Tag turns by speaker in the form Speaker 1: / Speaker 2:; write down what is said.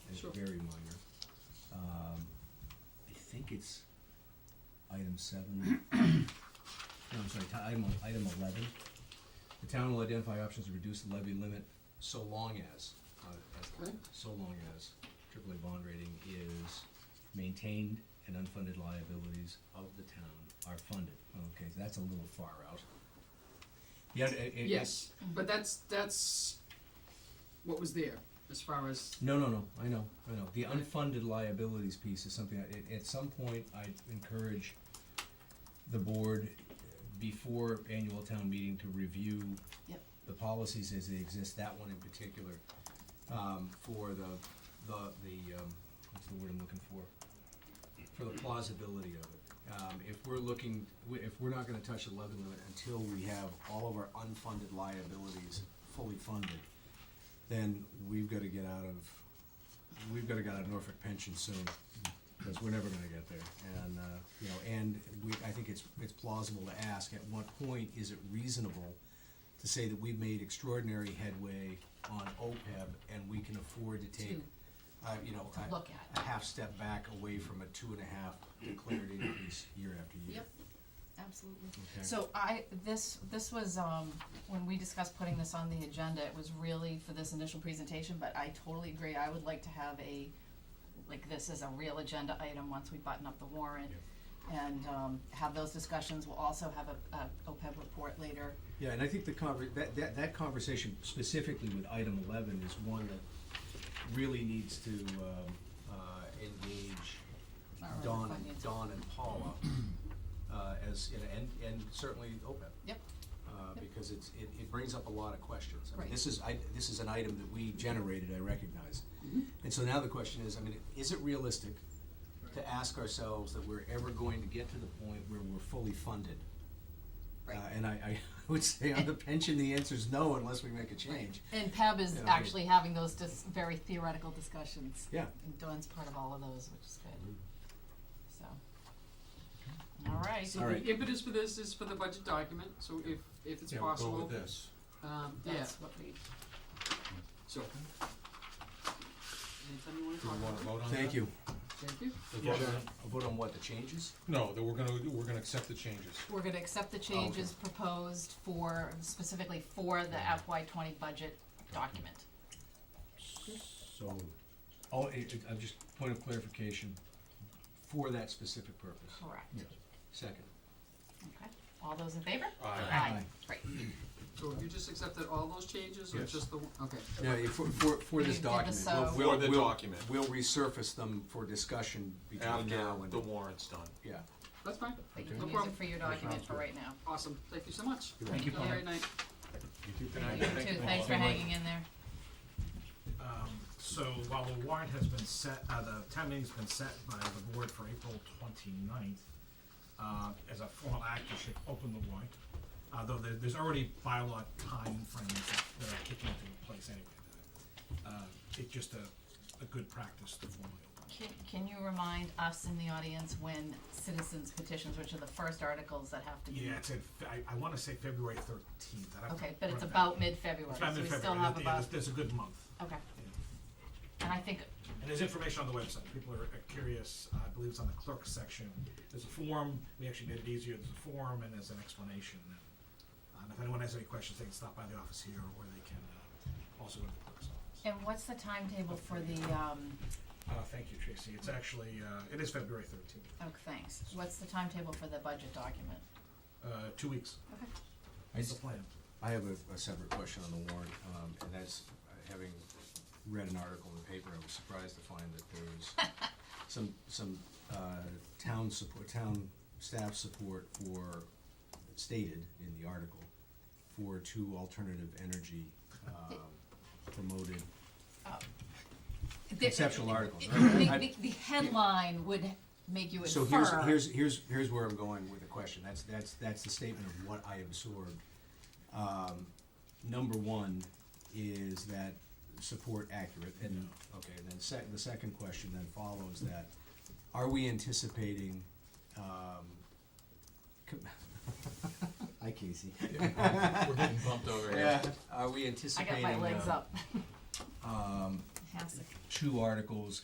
Speaker 1: Sure.
Speaker 2: very minor. Um, I think it's item seven, no, I'm sorry, ti- item, el- item eleven. The town will identify options to reduce the levy limit so long as, uh, as,
Speaker 1: Okay.
Speaker 2: so long as AAA bond rating is maintained and unfunded liabilities of the town are funded. Okay, so that's a little far out. Yeah, it, it-
Speaker 1: Yes, but that's, that's what was there, as far as,
Speaker 2: No, no, no, I know, I know. The unfunded liabilities piece is something, I- at, at some point, I encourage the board, uh, before annual town meeting, to review
Speaker 3: Yep.
Speaker 2: the policies as they exist, that one in particular, um, for the, the, the, um, what's the word I'm looking for? For the plausibility of it. Um, if we're looking, we- if we're not gonna touch the levy limit until we have all of our unfunded liabilities fully funded, then we've gotta get out of, we've gotta get out of Norfolk pension soon, because we're never gonna get there. And, uh, you know, and we, I think it's, it's plausible to ask, at what point is it reasonable to say that we've made extraordinary headway on OPEB and we can afford to take,
Speaker 3: Two.
Speaker 2: uh, you know,
Speaker 3: To
Speaker 2: a-
Speaker 3: look at.
Speaker 2: a half step back away from a two and a half declared increase year after year.
Speaker 3: Yep, absolutely.
Speaker 2: Okay.
Speaker 3: So I, this, this was, um, when we discussed putting this on the agenda, it was really for this initial presentation, but I totally agree, I would like to have a, like, this is a real agenda item once we button up the warrant. And, um, have those discussions, we'll also have a, a OPEB report later,
Speaker 2: Yeah, and I think the conver- that, that, that conversation specifically with item eleven is one that really needs to, um, uh, engage
Speaker 3: Our other
Speaker 2: Don, and-
Speaker 3: finance.
Speaker 2: Don and Paula, uh, as, you know, and, and certainly OPEB.
Speaker 3: yep,
Speaker 2: Uh,
Speaker 3: Yep.
Speaker 2: because it's, it, it brings up a lot of questions. I mean,
Speaker 3: Right.
Speaker 2: this is, I, this is an item that we generated, I recognize.
Speaker 3: Mm-hmm.
Speaker 2: And so now the question is, I mean, is it realistic to ask ourselves that we're ever going to get to the point where we're fully funded? Uh,
Speaker 3: right.
Speaker 2: and I, I would say on the pension, the answer is no unless we make a change.
Speaker 3: And PEB is
Speaker 2: Yeah, I-
Speaker 3: actually having those dis- very theoretical discussions.
Speaker 2: Yeah.
Speaker 3: And Dawn's part of all of those, which is good. So.
Speaker 2: Mm-hmm.
Speaker 3: All right.
Speaker 1: so the
Speaker 2: Alright.
Speaker 1: impetus for this is for the budget document, so if, if it's
Speaker 4: Yeah, we'll go
Speaker 1: possible,
Speaker 4: with this.
Speaker 1: um, yeah,
Speaker 3: That's what we,
Speaker 1: so. Anytime you wanna
Speaker 4: Do
Speaker 1: talk
Speaker 4: we wanna
Speaker 1: about
Speaker 4: vote on that?
Speaker 2: Thank you.
Speaker 1: it, thank you.
Speaker 4: The vote on-
Speaker 2: A vote on what, the changes?
Speaker 4: No, that we're gonna, we're gonna accept the changes.
Speaker 3: we're gonna accept the changes proposed for, specifically for the FY twenty budget document.
Speaker 2: So, oh, it, it- uh, just point of clarification, for that specific purpose.
Speaker 3: Correct.
Speaker 2: Second.
Speaker 3: Okay. All those in favor?
Speaker 4: Aye.
Speaker 3: Great.
Speaker 1: So have you just accepted all those changes, or
Speaker 4: Yes.
Speaker 1: just the, one? okay,
Speaker 2: Yeah, yeah, for, for, for this
Speaker 3: You did the
Speaker 2: document.
Speaker 3: so.
Speaker 2: We'll-
Speaker 4: For the
Speaker 2: we'll-
Speaker 4: document.
Speaker 2: We'll resurface them for discussion between
Speaker 4: After
Speaker 2: now and,
Speaker 4: the warrant's done.
Speaker 2: yeah.
Speaker 1: that's fine,
Speaker 3: But you
Speaker 1: no
Speaker 3: can use
Speaker 1: problem,
Speaker 3: it for your document for right now.
Speaker 1: awesome, thank you so much.
Speaker 2: Thank
Speaker 1: Have a great night.
Speaker 3: You too, thanks for hanging in there.
Speaker 5: So while the warrant has been set, uh, the town meeting's been set by the board for April 29th, uh, as a formal act, you should open the warrant. Uh, though there, there's already bylaw time frames that that are kicking into place anyway. Uh, it's just a, a good practice to formally open.
Speaker 3: Can, can you remind us in the audience when citizens petitions, which are the first articles that have to be?
Speaker 5: Yeah, it's in, Fe- I, I wanna say February thirteenth.
Speaker 3: Okay, but it's about mid-February,
Speaker 5: It's
Speaker 3: so
Speaker 5: about
Speaker 3: we still
Speaker 5: mid-February,
Speaker 3: have
Speaker 5: yeah,
Speaker 3: about,
Speaker 5: there's, there's a good month.
Speaker 3: okay,
Speaker 5: yeah.
Speaker 3: and I think,
Speaker 5: And there's information on the website. People are are curious. Uh, I believe it's on the clerk section. There's a form. We actually made it easier. There's a form and there's an explanation. Uh, And if anyone has any questions, they can stop by the office here or they can uh, also go to the clerk's office.
Speaker 3: and what's the timetable for the, um,
Speaker 5: Uh, thank you, Tracy. It's actually, uh, it is February thirteenth,
Speaker 3: oh, thanks, what's the timetable for the budget document?
Speaker 5: uh, two weeks.
Speaker 3: Okay.
Speaker 2: I
Speaker 5: That's the
Speaker 2: just,
Speaker 5: plan.
Speaker 2: I have a, a separate question on the warrant, um, and that's, uh, having read an article in the paper, I was surprised to find that there was some, some, uh, town support, town staff support for, stated in the article, for two alternative energy, um, promoted
Speaker 3: The-
Speaker 2: conceptual articles.
Speaker 3: The,
Speaker 2: right? I-
Speaker 3: the- the headline would make you
Speaker 2: So here's,
Speaker 3: infer,
Speaker 2: here's, here's, here's where I'm going with the question, that's, that's, that's the statement of what I absorbed. Um, number one is that support accurate, and, okay, then sec, the second question then follows that, are we anticipating, um, com- hi Casey.
Speaker 4: We're getting bumped over
Speaker 2: Yeah,
Speaker 4: here.
Speaker 2: are we uh,
Speaker 3: I got
Speaker 2: anticipating,
Speaker 3: my legs
Speaker 2: um,
Speaker 3: up,
Speaker 2: um,
Speaker 6: Fantastic.
Speaker 5: two articles